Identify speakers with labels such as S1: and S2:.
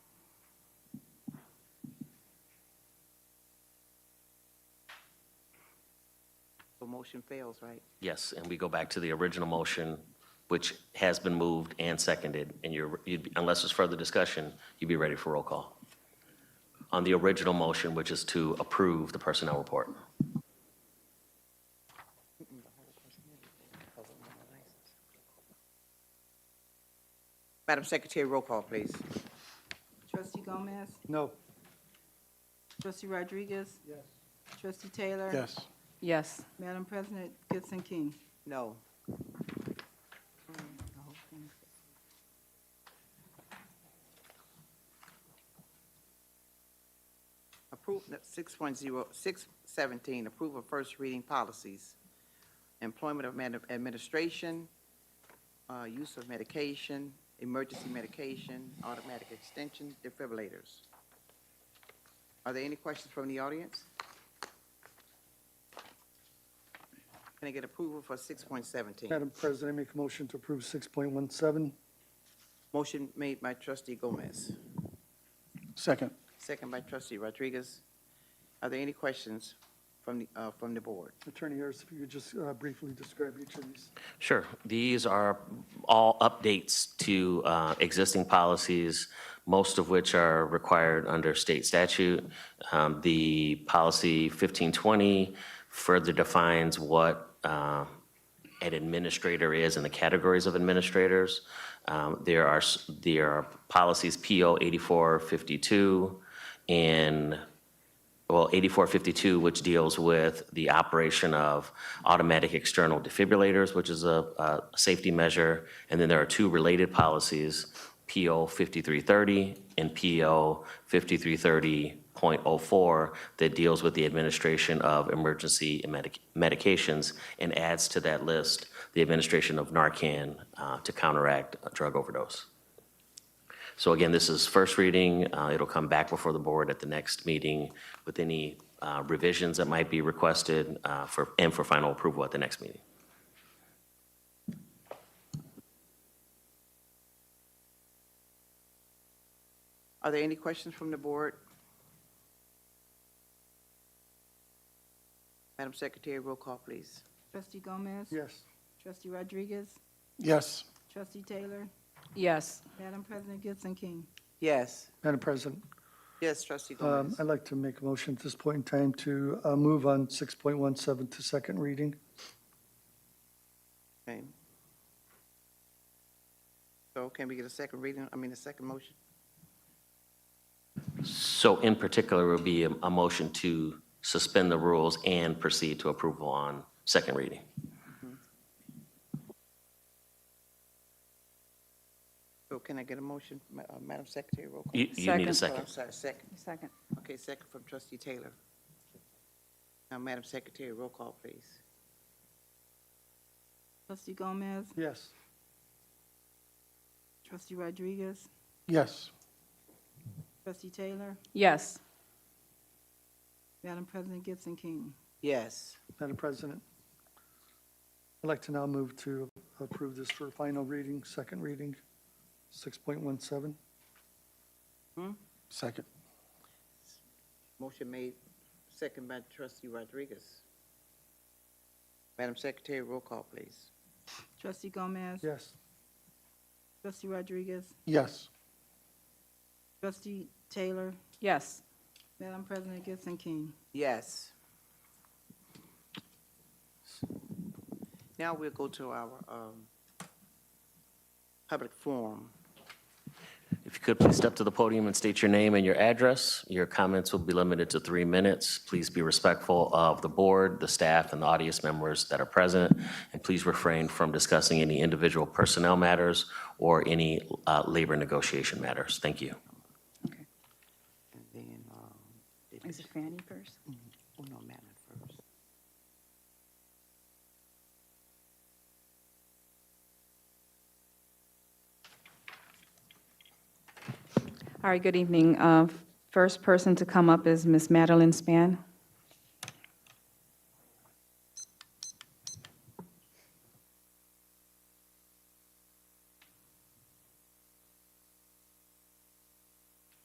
S1: motion fails, right?
S2: Yes, and we go back to the original motion, which has been moved and seconded, and you're, you'd be- unless there's further discussion, you'd be ready for roll call. On the original motion, which is to approve the personnel report.
S1: Madam Secretary, roll call, please.
S3: Trustee Gomez?
S4: No.
S3: Trustee Rodriguez? Yes. Trustee Taylor?
S4: Yes.
S5: Yes.
S3: Madam President, Gibson King?
S1: No. Approve, six point zero, six seventeen, approve of first reading policies. Employment of man- administration, uh, use of medication, emergency medication, automatic extension, defibrillators. Are there any questions from the audience? Can I get approval for six point seventeen?
S4: Madam President, I make a motion to approve 6.17.
S1: Motion made by trustee Gomez,
S4: Second.
S1: second by trustee Rodriguez. Are there any questions from the, uh, from the board?
S4: Attorney Harris, if you could just uh, briefly describe each of these.
S2: Sure. These are all updates to uh, existing policies, most of which are required under state statute. Um, The policy 1520 further defines what uh, an administrator is and the categories of administrators. Um, There are, s- there are policies PO 8452 and well, 8452, which deals with the operation of automatic external defibrillators, which is a, a safety measure. And then there are two related policies, PO 5330 and PO 5330.04, that deals with the administration of emergency medic- medications and adds to that list the administration of Narcan uh, to counteract a drug overdose. So again, this is first reading. Uh, It'll come back before the board at the next meeting with any uh, revisions that might be requested uh, for, and for final approval at the next meeting.
S1: Are there any questions from the board? Madam Secretary, roll call, please.
S3: Trustee Gomez?
S4: Yes.
S3: Trustee Rodriguez?
S4: Yes.
S3: Trustee Taylor?
S5: Yes.
S3: Madam President, Gibson King?
S1: Yes,
S4: Madam President,
S1: yes, trustee
S4: um,
S1: Gomez.
S4: I'd like to make a motion at this point in time to uh, move on 6.17 to second reading.
S1: Okay. So can we get a second reading, I mean, a second motion?
S2: So in particular, will be a a motion to suspend the rules and proceed to approval on second reading.
S1: So can I get a motion, Ma- uh, Madam Secretary, roll call?
S2: You you need a
S5: Second.
S1: Oh, I'm
S2: second.
S1: sorry, second.
S5: Second.
S1: Okay, second from trustee Taylor. Now, Madam Secretary, roll call, please.
S3: Trustee Gomez?
S4: Yes.
S3: Trustee Rodriguez?
S4: Yes.
S3: Trustee Taylor?
S5: Yes.
S3: Madam President, Gibson King?
S1: Yes,
S4: Madam President, I'd like to now move to approve this for final reading, second reading, 6.17. Hmm? Second.
S1: motion made, second by trustee Rodriguez. Madam Secretary, roll call, please.
S3: Trustee Gomez?
S4: Yes.
S3: Trustee Rodriguez?
S4: Yes.
S3: Trustee Taylor?
S5: Yes.
S3: Madam President, Gibson King?
S1: Yes. Now we'll go to our um, public forum.
S2: If you could, please step to the podium and state your name and your address. Your comments will be limited to three minutes. Please be respectful of the board, the staff, and the audience members that are present, and please refrain from discussing any individual personnel matters or any uh, labor negotiation matters. Thank you.
S5: Okay.
S1: And then, um, did-
S5: Is it Fanny first?
S1: oh, no, Madeline first.
S5: All right, good evening. Uh, First person to come up is Miss Madeline Span.